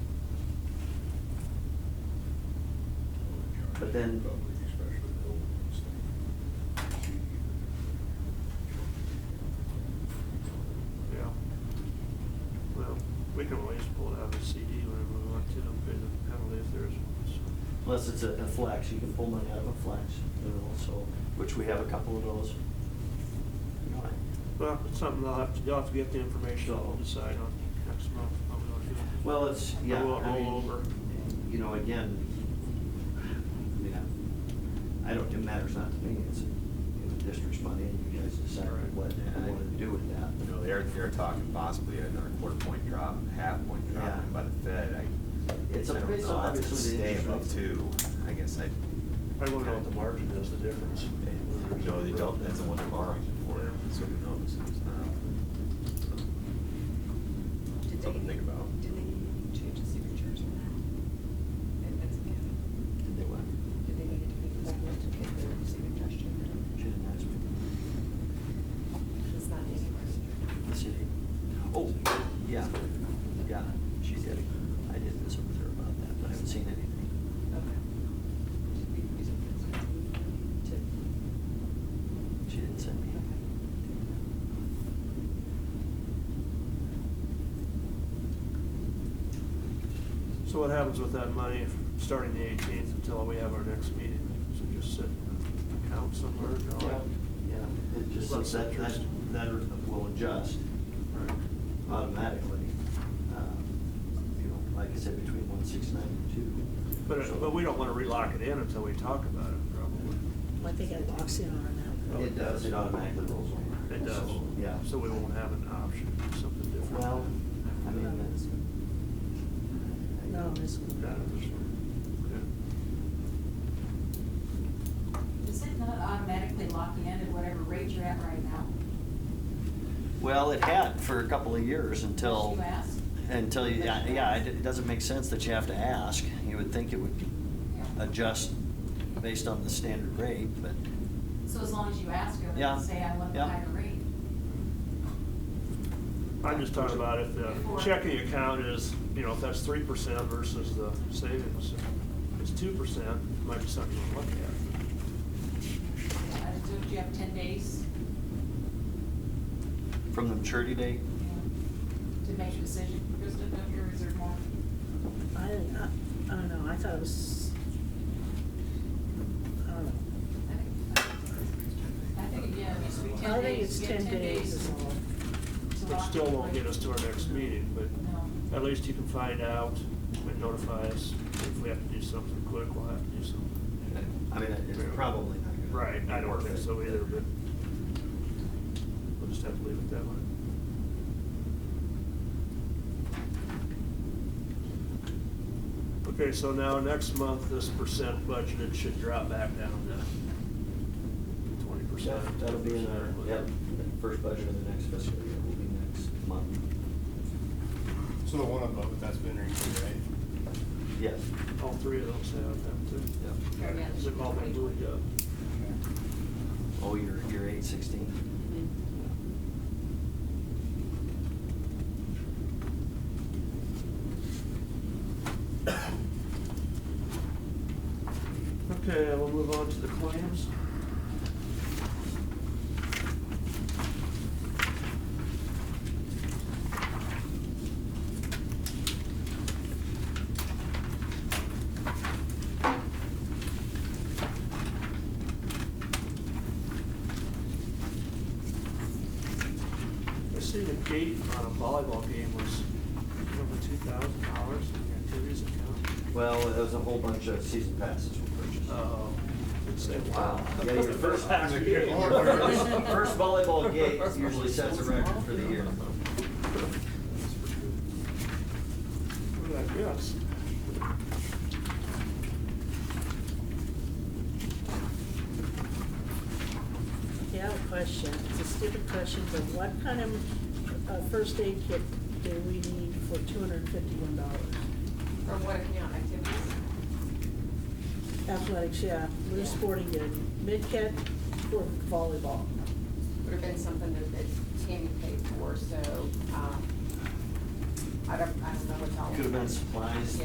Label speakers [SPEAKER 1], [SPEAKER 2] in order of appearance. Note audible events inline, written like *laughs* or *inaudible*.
[SPEAKER 1] But then,
[SPEAKER 2] Yeah. Well, we can always pull it out of the CD whenever we want to, and pay the penalty if there is one, so.
[SPEAKER 1] unless it's a, a flex, you can pull money out of a flex, you know, so, which we have a couple of those.
[SPEAKER 2] Well, it's something I'll have to, you'll have to get the information, I'll decide on next month, how we want to do it.
[SPEAKER 1] Well, it's,
[SPEAKER 2] Or
[SPEAKER 1] yeah.
[SPEAKER 2] we'll
[SPEAKER 1] I mean,
[SPEAKER 2] roll over.
[SPEAKER 1] You know, again, I mean, I- I don't, it matters not to me, it's, you know, district's money, and you guys decide
[SPEAKER 3] Right.
[SPEAKER 1] what you want to do with that.
[SPEAKER 3] You know, they're, they're talking possibly another quarter point drop, half point drop
[SPEAKER 1] Yeah.
[SPEAKER 3] by the Fed. I-
[SPEAKER 1] It's a-
[SPEAKER 3] I don't
[SPEAKER 1] it's
[SPEAKER 3] know.
[SPEAKER 1] obviously
[SPEAKER 3] That's
[SPEAKER 1] the
[SPEAKER 3] Stay
[SPEAKER 1] interest
[SPEAKER 3] above
[SPEAKER 1] rates.
[SPEAKER 3] two, I guess I,
[SPEAKER 2] I don't know what the margin is, the difference.
[SPEAKER 3] you know, they don't, that's the one they're borrowing for, so who knows? It's
[SPEAKER 1] Um,
[SPEAKER 3] not-
[SPEAKER 4] Did they-
[SPEAKER 3] Something to think about.
[SPEAKER 4] Did they change the signatures or not? And that's again,
[SPEAKER 1] Did they want?
[SPEAKER 4] did they need to make that one to get the
[SPEAKER 1] She
[SPEAKER 4] signatures changed?
[SPEAKER 1] didn't ask me.
[SPEAKER 4] It's not anywhere.
[SPEAKER 1] The city. Oh, yeah, yeah, she did. I did visit with her about that, but I haven't seen anything.
[SPEAKER 4] Okay. Should we use it for something to-
[SPEAKER 1] She didn't send me.
[SPEAKER 2] So what happens with that money, from starting the eighteenth until we have our next meeting? So just sit in an account somewhere, draw it?
[SPEAKER 1] Yeah, it just,
[SPEAKER 2] Lots of
[SPEAKER 1] that, that,
[SPEAKER 2] interest.
[SPEAKER 1] that will adjust
[SPEAKER 2] Right.
[SPEAKER 1] automatically. um, You know, like I said, between one sixty-nine and two.
[SPEAKER 2] But,
[SPEAKER 1] So-
[SPEAKER 2] it- but we don't want to relock it in until we talk about it, probably.
[SPEAKER 5] I think it locks in on that.
[SPEAKER 1] It does, it automatically rolls over.
[SPEAKER 2] It does.
[SPEAKER 1] So, Yeah.
[SPEAKER 2] So we won't have an option, something different.
[SPEAKER 1] Well, I mean, that's.
[SPEAKER 5] No, this one.
[SPEAKER 2] Not in this one.
[SPEAKER 6] Is it not automatically locked in at whatever rate you're at right now?
[SPEAKER 1] Well, it had for a couple of years until.
[SPEAKER 6] You asked?
[SPEAKER 1] Until, you- yeah, yeah, it it doesn't make sense that you have to ask. You would think it would
[SPEAKER 6] Yeah.
[SPEAKER 1] adjust based on the standard rate, but,
[SPEAKER 6] So as long as you ask them
[SPEAKER 1] Yeah,
[SPEAKER 6] and say, I want
[SPEAKER 1] yeah.
[SPEAKER 6] a higher rate.
[SPEAKER 2] Okay. I'm just talking about if the
[SPEAKER 6] Before.
[SPEAKER 2] checking account is, you know, if that's three percent versus the savings. If it's two percent, it might be something to look at.
[SPEAKER 6] I just told you have ten days
[SPEAKER 1] from the maturity date,
[SPEAKER 6] you know, to make a decision. Krista, don't you reserve more?
[SPEAKER 5] I, think- I I don't know, I thought it was, I don't know.
[SPEAKER 6] I think- I think, yeah, it used to be
[SPEAKER 5] I
[SPEAKER 6] ten days.
[SPEAKER 5] think it's
[SPEAKER 6] You have
[SPEAKER 5] ten days is
[SPEAKER 6] to
[SPEAKER 5] all.
[SPEAKER 2] Which
[SPEAKER 6] lock
[SPEAKER 2] still
[SPEAKER 6] in
[SPEAKER 2] won't
[SPEAKER 6] rate.
[SPEAKER 2] get us to our next meeting, but
[SPEAKER 6] No.
[SPEAKER 2] at least you can find out and notify us. If we have to do something quick, we'll have to do something.
[SPEAKER 1] I mean, it's probably not gonna.
[SPEAKER 2] Right, I don't
[SPEAKER 1] work
[SPEAKER 2] think
[SPEAKER 1] it.
[SPEAKER 2] so either, but we'll just have to leave it that way. Okay, so now next month, this percent budgeted should drop back down to twenty percent.
[SPEAKER 1] That- That'll be in our, yep, first budget of the next fiscal year will be next month.
[SPEAKER 7] So the one above it, that's been renewed, right?
[SPEAKER 1] Yes,
[SPEAKER 2] All three of those have them too.
[SPEAKER 1] yep.
[SPEAKER 6] Or, yeah,
[SPEAKER 2] They've all been moved up.
[SPEAKER 1] Oh, you're, you're eight sixteen.
[SPEAKER 6] Mhm.
[SPEAKER 2] Okay, we'll move on to the claims. I see the gate on a volleyball game was over two thousand dollars in the activities account.
[SPEAKER 1] Well, there was a whole bunch of season passes were purchased.
[SPEAKER 2] Oh, it's a
[SPEAKER 1] Wow. Um, Yeah, your *laughs* first, *laughs* first volleyball gate usually sets a record for the year.
[SPEAKER 2] Yes.
[SPEAKER 5] Yeah, I have a question, it's a stupid question, but what kind of uh, first aid kit do we need for two hundred and fifty-one dollars?
[SPEAKER 4] Or what account activities?
[SPEAKER 5] Athletics, yeah, we're sporting good, mid kit for volleyball.
[SPEAKER 4] Would have been something that, that Tammy paid for, so, um, I don't, I don't know what's all.
[SPEAKER 1] Could have been supplies,